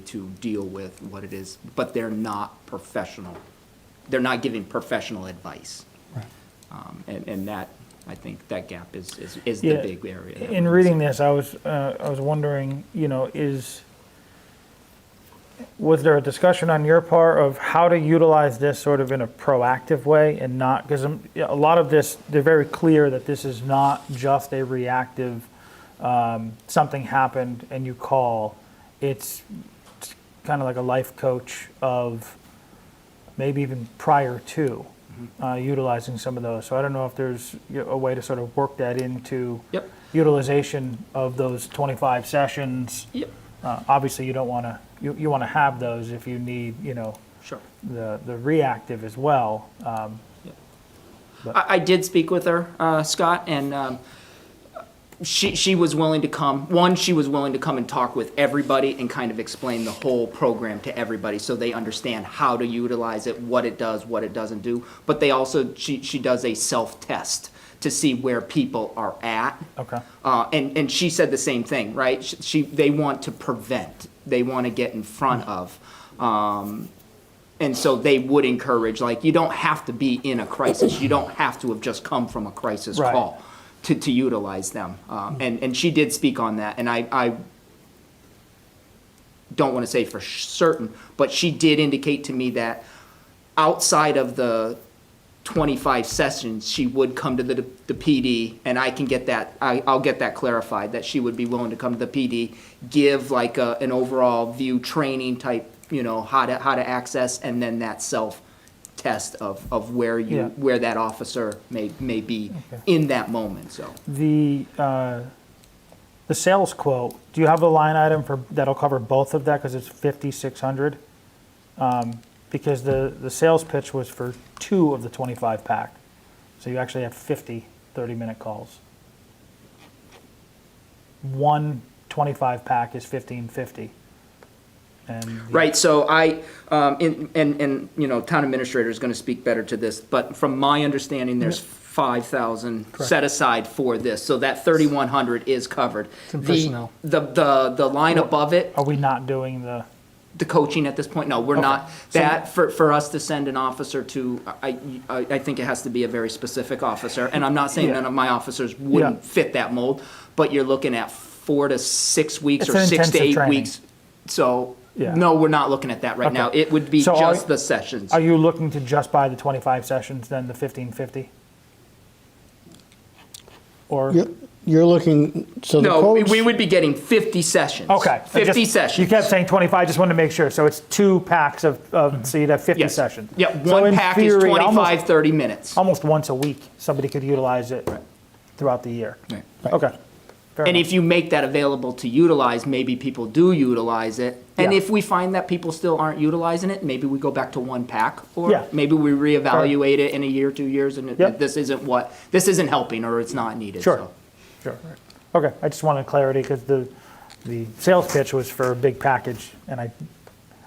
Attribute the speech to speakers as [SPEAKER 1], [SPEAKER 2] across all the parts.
[SPEAKER 1] to deal with what it is, but they're not professional. They're not giving professional advice. Um, And, and that, I think that gap is, is, is the
[SPEAKER 2] Yeah.
[SPEAKER 1] big area. that
[SPEAKER 2] In
[SPEAKER 1] we-
[SPEAKER 2] reading this, I was, uh, I was wondering, you know, is, was there a discussion on your part of how to utilize this sort of in a proactive way and not, because a lot of this, they're very clear that this is not just a reactive, um, something happened and you call. It's kind of like a life coach of maybe even prior to
[SPEAKER 1] Mm-hmm.
[SPEAKER 2] uh, utilizing some of those. So I don't know if there's you know, a way to sort of work that into
[SPEAKER 1] Yep,
[SPEAKER 2] utilization of those 25 sessions.
[SPEAKER 1] yep,
[SPEAKER 2] Uh, Obviously, you don't want to, you, you want to have those if you need, you know,
[SPEAKER 1] sure.
[SPEAKER 2] the, the reactive as well. Um,
[SPEAKER 1] I, I did speak with her, uh, Scott, and, um, she, she was willing to come, one, she was willing to come and talk with everybody and kind of explain the whole program to everybody so they understand how to utilize it, what it does, what it doesn't do. But they also, she, she does a self-test to see where people are at.
[SPEAKER 2] Okay.
[SPEAKER 1] Uh, and, and she said the same thing, right? She, she, they want to prevent, they want to get in front of. Um, and so they would encourage, like, you don't have to be in a crisis. You don't have to have just come from a crisis
[SPEAKER 2] Right.
[SPEAKER 1] call to, to utilize them. Um, and, and she did speak on that. And I, I don't want to say for certain, but she did indicate to me that outside of the 25 sessions, she would come to the, the PD, and I can get that, I, I'll get that clarified, that she would be willing to come to the PD, give like a, an overall view training type, you know, how to, how to access, and then that self-test of, of where
[SPEAKER 2] Yeah.
[SPEAKER 1] you, where that officer may, may be in that moment, so.
[SPEAKER 2] The, uh, the sales quote, do you have a line item for, that'll cover both of that? Because it's 5,600? Um, Because the, the sales pitch was for two of the 25 pack. So you actually have 50 30-minute calls. One 25 pack is 1550. And the-
[SPEAKER 1] Right, so I, um, in- and, and, you know, town administrator is gonna speak better to this, but from my understanding, there's five thousand set aside for this, so that thirty-one hundred is covered.
[SPEAKER 3] in
[SPEAKER 1] The-
[SPEAKER 3] personnel.
[SPEAKER 1] The, the, the line above it,
[SPEAKER 2] are we not doing the,
[SPEAKER 1] the coaching at this point, no, we're not, that, for, for us to send an officer to, I, I, I think it has to be a very specific officer, and I'm not saying
[SPEAKER 2] Yeah.
[SPEAKER 1] none of my officers wouldn't
[SPEAKER 2] Yeah.
[SPEAKER 1] fit that mold, but you're looking at four to six weeks
[SPEAKER 2] It's
[SPEAKER 1] or
[SPEAKER 2] an
[SPEAKER 1] six to
[SPEAKER 2] intensive
[SPEAKER 1] eight
[SPEAKER 2] training.
[SPEAKER 1] weeks. So,
[SPEAKER 2] Yeah.
[SPEAKER 1] no, we're not looking at that right now,
[SPEAKER 2] Okay.
[SPEAKER 1] it would be
[SPEAKER 2] So are-
[SPEAKER 1] just the sessions.
[SPEAKER 2] are you looking to just buy the 25 sessions, then the 1550? Or?
[SPEAKER 3] You're, you're looking, so the
[SPEAKER 1] No, we-
[SPEAKER 3] quotes,
[SPEAKER 1] we would be getting fifty sessions.
[SPEAKER 2] Okay. I
[SPEAKER 1] Fifty
[SPEAKER 2] just- You
[SPEAKER 1] sessions.
[SPEAKER 2] kept saying 25, I just wanted to make sure. So it's two packs of, of so you'd have 50
[SPEAKER 1] Mm-hmm. Yes.
[SPEAKER 2] sessions.
[SPEAKER 1] Yeah,
[SPEAKER 2] So
[SPEAKER 1] one
[SPEAKER 2] in
[SPEAKER 1] pack is
[SPEAKER 2] theory,
[SPEAKER 1] 25,
[SPEAKER 2] Almost,
[SPEAKER 1] 30 minutes.
[SPEAKER 2] almost once a week, somebody could utilize it throughout the year.
[SPEAKER 1] Right.
[SPEAKER 2] Okay. Fair
[SPEAKER 1] And
[SPEAKER 2] enough.
[SPEAKER 1] if you make that available to utilize, maybe people do utilize it. And
[SPEAKER 2] Yeah.
[SPEAKER 1] if we find that people still aren't utilizing it, maybe we go back to one pack.
[SPEAKER 2] Yeah.
[SPEAKER 1] Or maybe we reevaluate it in a year, two years, and
[SPEAKER 2] Yep.
[SPEAKER 1] it- this isn't what, this isn't helping or it's not needed,
[SPEAKER 2] Sure.
[SPEAKER 1] so.
[SPEAKER 2] Sure. Okay, I just wanted clarity because the, the sales pitch was for a big package and I,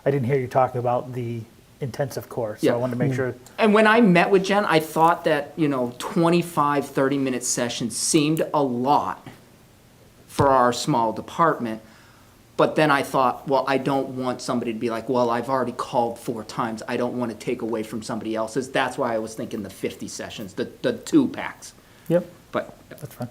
[SPEAKER 2] I didn't hear you talking about the intensive course. So I
[SPEAKER 1] Yeah.
[SPEAKER 2] wanted to make sure,
[SPEAKER 1] And when I met with Jen, I thought that, you know, 25, 30-minute sessions seemed a lot for our small department. But then I thought, well, I don't want somebody to be like, well, I've already called four times. I don't want to take away from somebody else's. That's why I was thinking the 50 sessions, the, the two packs.
[SPEAKER 2] yep,
[SPEAKER 1] But,
[SPEAKER 2] that's fine.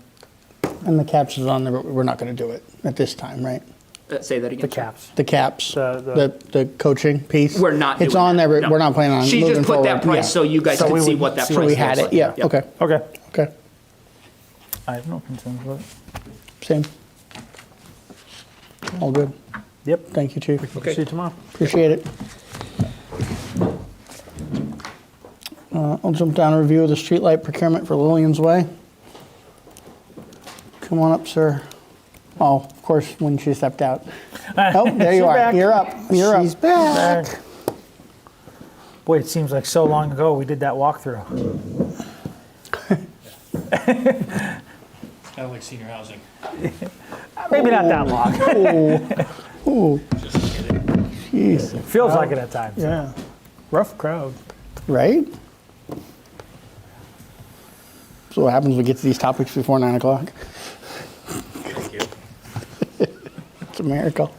[SPEAKER 3] and the caps is on there, but we're not going to do it at this time, right?
[SPEAKER 1] uh, say that again.
[SPEAKER 2] The
[SPEAKER 1] sir.
[SPEAKER 2] caps.
[SPEAKER 3] The caps,
[SPEAKER 2] The-
[SPEAKER 3] the, the coaching piece?
[SPEAKER 1] We're not
[SPEAKER 3] It's
[SPEAKER 1] doing
[SPEAKER 3] on
[SPEAKER 1] that,
[SPEAKER 3] there, but
[SPEAKER 1] no.
[SPEAKER 3] we're not planning on
[SPEAKER 1] She
[SPEAKER 3] moving
[SPEAKER 1] just put that
[SPEAKER 3] forward,
[SPEAKER 1] price
[SPEAKER 3] yeah.
[SPEAKER 1] so you guys
[SPEAKER 2] So
[SPEAKER 1] could
[SPEAKER 2] we
[SPEAKER 1] see
[SPEAKER 2] would-
[SPEAKER 1] what that
[SPEAKER 2] so
[SPEAKER 1] price
[SPEAKER 3] So
[SPEAKER 1] was.
[SPEAKER 3] we had it, yeah, okay,
[SPEAKER 2] Okay.
[SPEAKER 3] okay,
[SPEAKER 2] I have no concerns with
[SPEAKER 3] same. All good.
[SPEAKER 2] it. Yep.
[SPEAKER 3] Thank you, Chief.
[SPEAKER 2] Okay. See you tomorrow.
[SPEAKER 3] Appreciate it. Uh, I'll jump down to review of the streetlight procurement for Lillian's Way. Come on up, sir. Oh, of course, when she stepped out. Oh, there
[SPEAKER 2] She's
[SPEAKER 3] you are.
[SPEAKER 2] back.
[SPEAKER 3] You're up. You're up. She's back.
[SPEAKER 2] Back. Boy, it seems like so long ago we did that walkthrough.
[SPEAKER 4] Kind of like senior housing.
[SPEAKER 2] Maybe not that long.
[SPEAKER 3] Jeez.
[SPEAKER 2] Feels like it at times.
[SPEAKER 3] Yeah.
[SPEAKER 2] Rough crowd.
[SPEAKER 3] Right? So what happens when we get to these topics before nine o'clock?
[SPEAKER 4] Thank you.
[SPEAKER 3] It's a miracle.